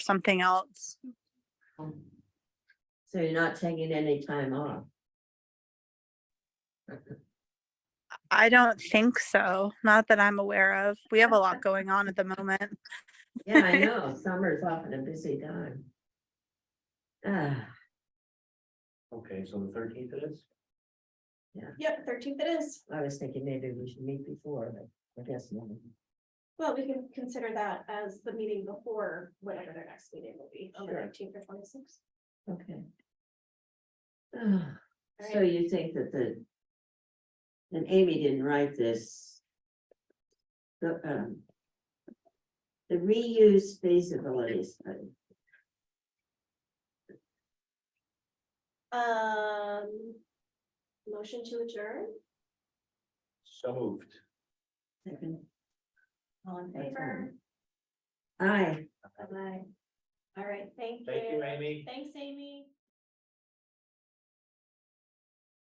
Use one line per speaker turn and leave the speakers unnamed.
something else.
So you're not taking any time off?
I don't think so. Not that I'm aware of. We have a lot going on at the moment.
Yeah, I know, summer is often a busy time. Ah,
Okay, so the thirteenth it is?
Yep, thirteenth it is.
I was thinking maybe we should meet before, but I guess not.
Well, we can consider that as the meeting before whatever their next meeting will be, on the
Sure.
nineteenth or twenty-sixth.
Okay. Ah, So you think that the. And Amy didn't write this. The, um. The reuse feasibility study.
Um, motion to adjourn,
So moved.
Second,
all in
that's
favor?
Aye.
Bye-bye. All right, thank you.
Thank you, Amy.
Thanks, Amy.